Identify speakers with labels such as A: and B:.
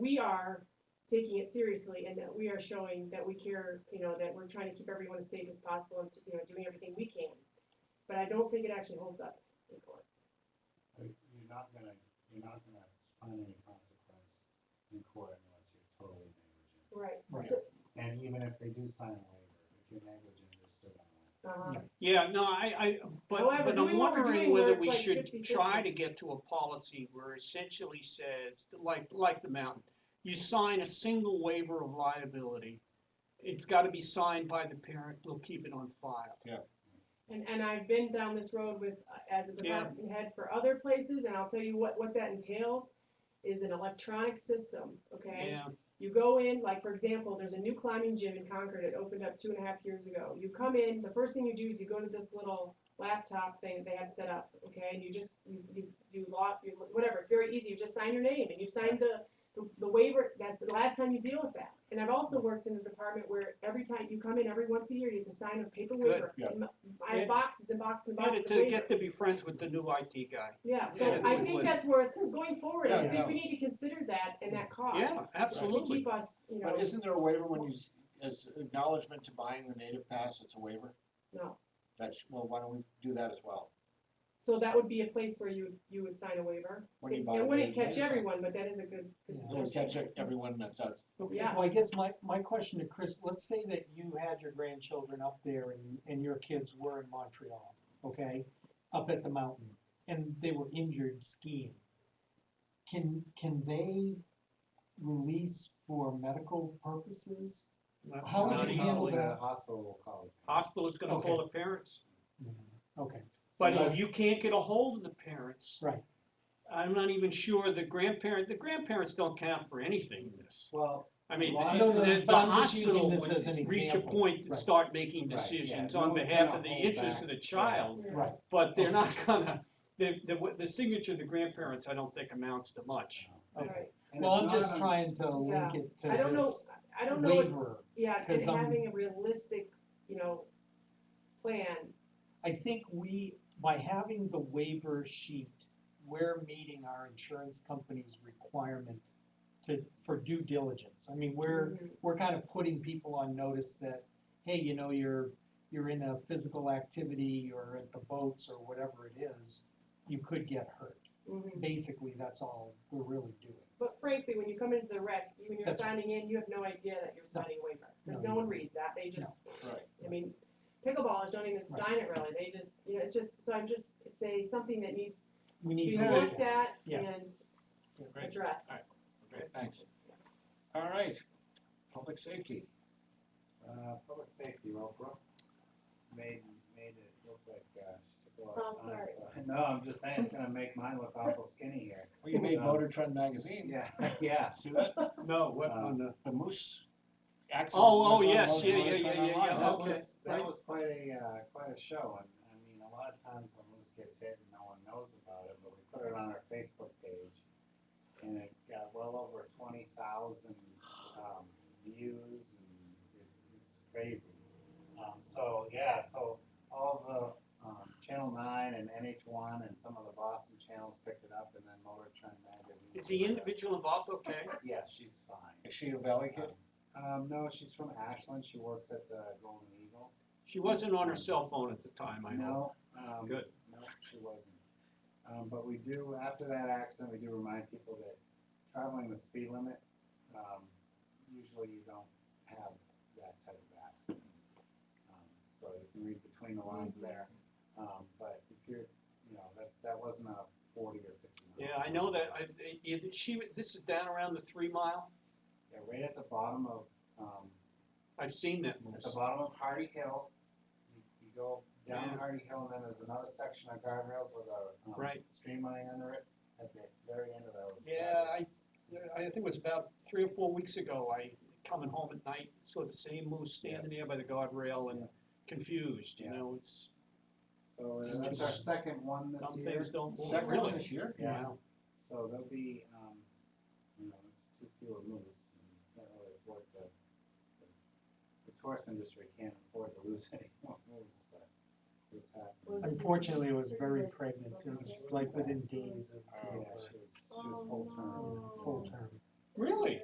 A: we are taking it seriously and that we are showing that we care, you know, that we're trying to keep everyone as safe as possible and, you know, doing everything we can. But I don't think it actually holds up in court.
B: Like, You're not gonna, you're not gonna find any consequence in court unless you're totally negligent.
A: Right.
C: Right.
B: And even if they do sign a waiver, if you're negligent, they're still gonna win.
A: Uh-huh.
C: Yeah, no, I, I, but,
A: However,
C: but
A: doing
C: I'm
A: what we're doing
C: wondering
A: where
C: whether
A: it's
C: we
A: like
C: should
A: 50-50.
C: try to get to a policy where essentially says, like, like the mountain. You sign a single waiver of liability. It's gotta be signed by the parent. We'll keep it on file.
A: And, and I've been down this road with, uh, as a
C: Yeah.
A: department head for other places, and I'll tell you what, what that entails is an electronic system, okay?
C: Yeah,
A: You go in, like, for example, there's a new climbing gym in Concord, it opened up two and a half years ago. You come in, the first thing you do is you go to this little laptop thing that they have set up, okay? And you just, you, you, you log, you, whatever, it's very easy, you just sign your name, and you sign the, the- the waiver, that's the last time you deal with that. And I've also worked in a department where every time, you come in every once a year, you have to sign a paper
C: Good,
A: waiver.
D: yeah.
A: And I
C: Yeah.
A: have boxes and boxes and
C: Get
A: boxes
C: it
A: of
C: to,
A: waivers.
C: get to be friends with the new IT guy.
A: Yeah,
C: Yeah,
A: so
C: it
A: I
C: was
A: think
C: listed.
A: that's worth, going forward, I
D: Yeah,
A: think we
D: yeah.
A: need to consider that and that cost.
C: Yeah,
A: To
C: absolutely.
A: keep us, you know,
D: But isn't there a waiver when you, s- as acknowledgement to buying the native pass, it's a waiver?
A: no,
D: That's, well, why don't we do that as well?
A: so that would be a place where you, you would sign a waiver.
D: When you
A: It
D: buy
A: it
D: the
A: wouldn't
D: native
A: catch
D: native pass.
A: everyone, but that is a good, good
D: It'll
A: suggestion.
D: catch e- everyone that's us.
E: Okay,
A: Yeah.
E: Well, I guess my, my question to Chris, let's say that you had your grandchildren up there and, and your kids were in Montreal, okay? Up at the mountain, and they were injured skiing. Can, can they release for medical purposes?
C: Not-
E: How would
C: not
E: you
B: The
E: handle
B: hospital-
C: easily.
E: that?
B: The hospital will call you.
C: Hospital is gonna call
E: Okay.
C: the parents.
E: Mm-hmm. Okay,
C: But
D: Yes.
C: if you can't get a hold of the parents.
E: Right.
C: I'm not even sure the grandparent, the grandparents don't count for anything in this.
B: Well,
C: I mean,
B: Well, I
C: the,
B: don't
E: know,
C: the- the
E: but I'm just
C: hospital
E: using this
C: would
E: as an
C: reach a
E: example.
C: point to
E: Right.
C: start making
B: Right, yeah.
C: decisions
B: No
C: on
B: one's
C: behalf
B: gonna
C: of the
B: hold
C: interest
B: back.
C: of the child,
A: Yeah.
E: right,
C: but they're not gonna, the, the, the signature of the grandparents, I don't think amounts to much.
E: okay.
B: and
E: Well,
B: it's
E: I'm
B: not
E: just
B: on-
E: trying to link
A: Yeah.
E: it
A: I
E: to
A: don't know,
E: this
A: I don't know, it's,
E: waiver.
A: yeah, and
E: 'cause I'm-
A: having a realistic, you know, plan,
E: I think we, by having the waiver sheet, we're meeting our insurance company's requirement to, for due diligence. I mean, we're,
A: Mhm.
E: we're kind of putting people on notice that, hey, you know, you're, you're in a physical activity or at the boats or whatever it is, you could get hurt.
A: Mhm.
E: Basically, that's all we're really doing.
A: But frankly, when you come into the rec, you- when you're
E: That's right.
A: signing in, you have no idea that you're signing a waiver, because
E: No,
A: no
E: you
A: one reads that, they just
D: Right.
A: I mean, pickleballers don't even
E: Right.
A: sign it really, they just, you know, it's just, so I'm just, say something that needs
E: We
A: to
E: need
A: be
E: to look
A: looked
E: at.
A: at
E: Yeah.
A: and
C: Great.
A: addressed.
C: All right.
D: Okay, thanks. All right, public safety.
B: Uh, public safety, well, Brooke made, made it look like, uh, she took a lot
A: Oh,
B: of time.
A: sorry.
B: so- No, I'm just saying, it's gonna make mine look awful skinny here.
D: Well, you made
B: Um,
D: Motor Trend magazine.
B: Yeah, yeah.
D: See that?
C: No, what,
B: Uh,
C: on the,
D: The moose accident.
C: Oh, oh,
D: was on
C: yes,
D: Motor
C: yeah,
D: Trend
C: yeah, yeah, yeah,
D: online.
C: yeah,
D: That
B: That
C: okay.
D: was-
B: was, that
D: right?
B: was quite a, uh, quite a show, and, I mean, a lot of times the moose gets hit and no one knows about it, but we put it on our Facebook page. And it got well over twenty thousand, um, views, and it, it's crazy. Um, so, yeah, so all the, um, Channel Nine and NH One and some of the Boston channels picked it up, and then Motor Trend magazine.
C: is the individual involved okay?
B: Yeah, she's fine.
D: Is she a valley kid?
B: Um, no, she's from Ashland, she works at the Golden Eagle.
C: She wasn't on her cell phone at the time, I know.
B: No, um,
C: Good.
B: no, she wasn't. Um, but we do, after that accident, we do remind people that traveling the speed limit, um, usually you don't have that type of accident. Um, So you can read between the lines there, um, but if you're, you know, that's, that wasn't a forty or fifty. mile
C: Yeah, I know that, I, it- it- she, this is down around the three mile,
B: Yeah, right at the bottom of, um,
C: I've seen
B: at
C: that
B: the
C: moose.
B: bottom of Hardy Hill, you, you go
C: Yeah.
B: down Hardy Hill, and then there's another section of guardrails with a, um,
C: Right.
B: stream running under it, at the very end of those.
C: Yeah, I-
B: guardrails.
C: I think it was about three or four weeks ago, I, coming home at night, saw the same moose standing there by the guardrail and confused, you
B: Yeah.
C: know, it's,
B: So
C: It's
B: uh, that's our
C: just-
B: second one this
C: some
B: year,
C: things don't move,
D: Second
C: really.
D: one this year?
B: Yeah.
C: Wow.
B: so there'll be, um, you know, it's too few of moose, and you can't really afford to, the- the tourist industry can't afford to lose any more moose, but it's happening.
E: Unfortunately, it was very pregnant, it was like within days of
B: Yeah, she was, she was full term.
E: full term.
C: Really?